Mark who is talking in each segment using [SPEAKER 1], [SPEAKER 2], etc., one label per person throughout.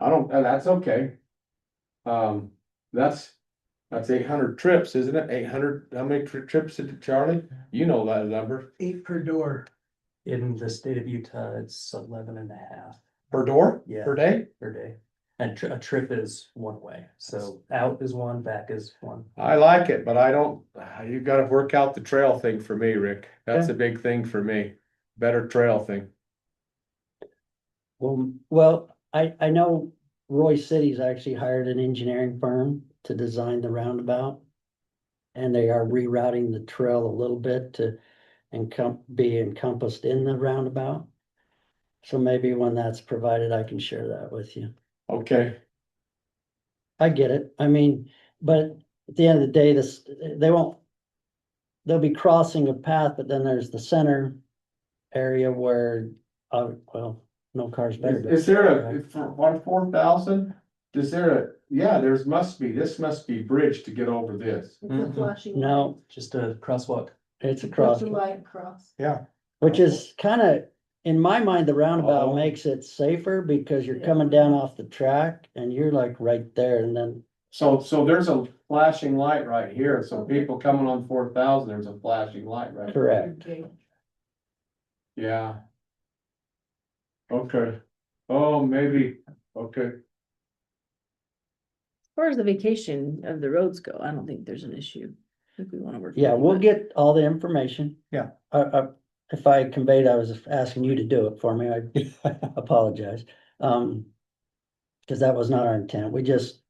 [SPEAKER 1] don't, uh, that's okay. Um, that's, that's eight hundred trips, isn't it? Eight hundred, how many tri- trips did Charlie? You know that number,
[SPEAKER 2] eight per door.
[SPEAKER 3] In the state of Utah, it's eleven and a half
[SPEAKER 1] per door,
[SPEAKER 3] Yeah.
[SPEAKER 1] per day?
[SPEAKER 3] per day. And tri- a trip is one way, so out is one, back is one.
[SPEAKER 1] I like it, but I don't, ah, you gotta work out the trail thing for me, Rick. That's a big thing for me. Better trail thing.
[SPEAKER 4] Well, well, I, I know Roy City's actually hired an engineering firm to design the roundabout. And they are rerouting the trail a little bit to encom- be encompassed in the roundabout. So maybe when that's provided, I can share that with you.
[SPEAKER 1] Okay,
[SPEAKER 4] I get it. I mean, but at the end of the day, this, they won't. They'll be crossing a path, but then there's the center area where, uh, well, no cars better.
[SPEAKER 1] is
[SPEAKER 4] go
[SPEAKER 1] is there
[SPEAKER 4] through,
[SPEAKER 1] a,
[SPEAKER 4] right?
[SPEAKER 1] for one four thousand? Is there a, yeah, there's must be, this must be bridge to get over this.
[SPEAKER 5] It's a
[SPEAKER 6] Mm-hmm.
[SPEAKER 3] Mhm.
[SPEAKER 5] flashing.
[SPEAKER 4] Mm-hmm. No,
[SPEAKER 3] Just a crosswalk.
[SPEAKER 4] it's a
[SPEAKER 5] Cross
[SPEAKER 4] cross,
[SPEAKER 5] the light cross.
[SPEAKER 4] which is kind of, in my mind, the
[SPEAKER 1] Oh.
[SPEAKER 4] roundabout makes it safer because you're
[SPEAKER 5] Yeah.
[SPEAKER 4] coming down off the track and you're like right there and then.
[SPEAKER 1] So, so there's a flashing light right here, so people coming on four thousand, there's a flashing light right,
[SPEAKER 4] Correct.
[SPEAKER 5] Okay.
[SPEAKER 1] yeah. Okay, oh, maybe, okay,
[SPEAKER 6] As far as the vacation of the roads go, I don't think there's an issue. If we wanna work.
[SPEAKER 4] Yeah,
[SPEAKER 6] with it,
[SPEAKER 4] we'll
[SPEAKER 6] but-
[SPEAKER 4] get all the information.
[SPEAKER 1] Yeah.
[SPEAKER 4] I, I, if I conveyed, I was asking you to do it for me, I apologize. Um, cause that was not our intent, we just,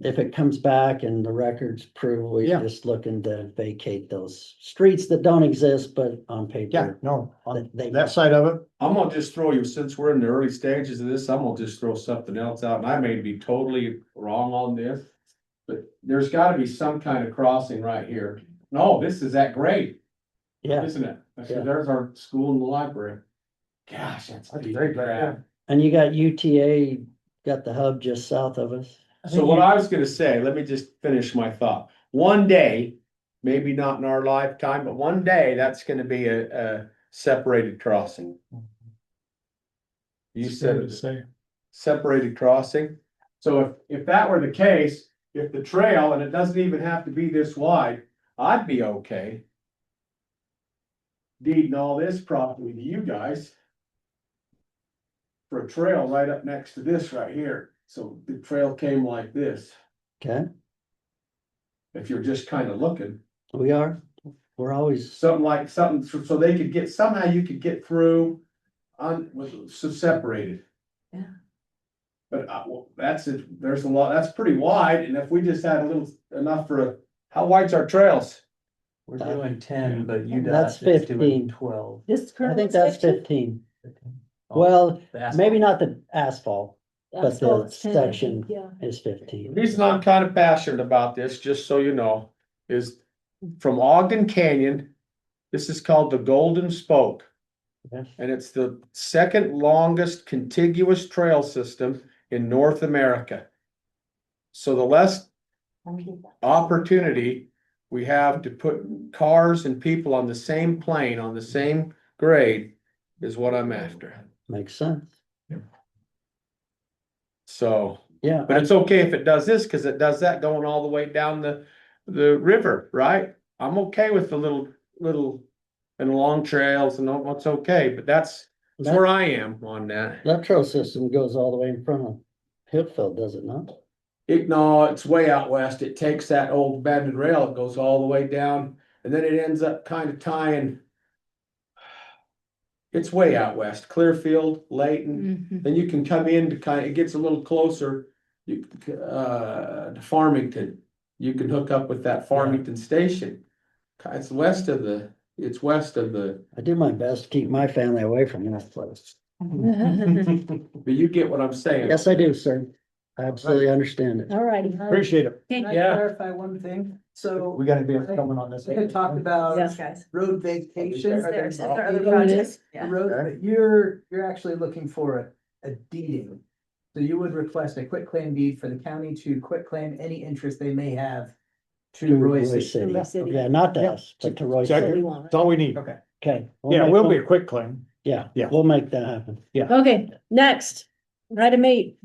[SPEAKER 4] if it comes back and the records prove, we're
[SPEAKER 7] Yeah.
[SPEAKER 4] just looking to vacate those streets that don't exist, but on
[SPEAKER 7] Yeah,
[SPEAKER 4] paper.
[SPEAKER 7] no, on
[SPEAKER 4] they-
[SPEAKER 7] that side of it,
[SPEAKER 1] I'm gonna just throw you, since we're in the early stages of this, I'm gonna just throw something else out, and I may be totally wrong on this. But there's gotta be some kind of crossing right here, no, this is that grade,
[SPEAKER 4] Yeah,
[SPEAKER 1] isn't it? I
[SPEAKER 4] Yeah.
[SPEAKER 1] said, there's our school and the library. Gosh, that's.
[SPEAKER 7] That's
[SPEAKER 1] deep
[SPEAKER 7] great,
[SPEAKER 1] crap.
[SPEAKER 7] yeah.
[SPEAKER 4] and you got UTA, got the hub just south of us.
[SPEAKER 1] So what I was gonna say, let me just finish my thought. One day, maybe not in our lifetime, but one day, that's gonna be a, a separated crossing. You said
[SPEAKER 7] to
[SPEAKER 1] it,
[SPEAKER 7] say.
[SPEAKER 1] separated crossing. So if, if that were the case, if the trail, and it doesn't even have to be this wide, I'd be okay. Deeding all this property to you guys. For a trail right up next to this right here, so the trail came like this
[SPEAKER 4] Okay,
[SPEAKER 1] if you're just kind of looking,
[SPEAKER 4] we are, we're always,
[SPEAKER 1] something like something, so- so they could get, somehow you could get through. On, was so separated.
[SPEAKER 6] Yeah.
[SPEAKER 1] But uh, well, that's it, there's a lot, that's pretty wide, and if we just had a little, enough for a, how wide's our trails?
[SPEAKER 3] We're doing ten, but
[SPEAKER 4] That's
[SPEAKER 3] UDOT is
[SPEAKER 4] 15.
[SPEAKER 3] doing twelve.
[SPEAKER 6] This
[SPEAKER 4] I
[SPEAKER 6] current.
[SPEAKER 4] think that's fifteen. Well,
[SPEAKER 3] The asphalt.
[SPEAKER 4] maybe not the asphalt. the section-
[SPEAKER 5] Yeah.
[SPEAKER 4] Is
[SPEAKER 1] The
[SPEAKER 4] fifteen.
[SPEAKER 1] reason I'm kind of passionate about this, just so you know, is from Ogden Canyon. This is called the Golden Spoke.
[SPEAKER 4] Okay.
[SPEAKER 1] And it's the second longest contiguous trail system in North America. So the less opportunity we have to put cars and people on the same plane, on the same grade, is what I'm after.
[SPEAKER 4] Makes sense.
[SPEAKER 1] So,
[SPEAKER 4] Yeah,
[SPEAKER 1] but it's okay if it does this, cause it does that going all the way down the, the river, right? I'm okay with the little, little, and long trails and all, that's okay, but that's, that's where
[SPEAKER 4] that,
[SPEAKER 1] I am on that.
[SPEAKER 4] that trail system goes all the way in front of Hillfield, does it not?
[SPEAKER 1] It, no, it's way out west. It takes that old abandoned rail, it goes all the way down, and then it ends up kind of tying. It's way out west, Clearfield, Layton,
[SPEAKER 6] Mhm.
[SPEAKER 1] Then you can come in to kind of, it gets a little closer, you, uh, to Farmington. You can hook up with that Farmington station. It's west of the, it's west of the,
[SPEAKER 4] I do my best to keep my family away from that place.
[SPEAKER 1] but you get what I'm saying.
[SPEAKER 4] Yes, I do, sir. I absolutely understand it.
[SPEAKER 6] All righty.
[SPEAKER 7] Appreciate it.
[SPEAKER 6] Okay.
[SPEAKER 2] Can I
[SPEAKER 1] Yeah.
[SPEAKER 2] clarify one thing? So
[SPEAKER 7] We gotta be coming on this.
[SPEAKER 2] we had talked about
[SPEAKER 6] Yes, guys.
[SPEAKER 2] road
[SPEAKER 6] Is
[SPEAKER 2] vacation. or
[SPEAKER 6] there, is there other
[SPEAKER 2] vacating
[SPEAKER 6] projects?
[SPEAKER 2] the
[SPEAKER 6] Yeah.
[SPEAKER 2] Road, but you're, you're actually looking for a, a deeding. So you would request a quit claim deed for the county to quit claim any interest they may have to Roy City.
[SPEAKER 6] Roy City.
[SPEAKER 4] Yeah, not to us, but to Roy
[SPEAKER 7] Check
[SPEAKER 6] We
[SPEAKER 4] City.
[SPEAKER 6] want,
[SPEAKER 7] That's all we need.
[SPEAKER 2] Okay.
[SPEAKER 4] Okay. we'll
[SPEAKER 7] Yeah,
[SPEAKER 4] make
[SPEAKER 7] we'll
[SPEAKER 4] one-
[SPEAKER 7] be a quick claim.
[SPEAKER 4] Yeah,
[SPEAKER 7] Yeah.
[SPEAKER 4] we'll make that happen.
[SPEAKER 6] right? Okay, next, item eight,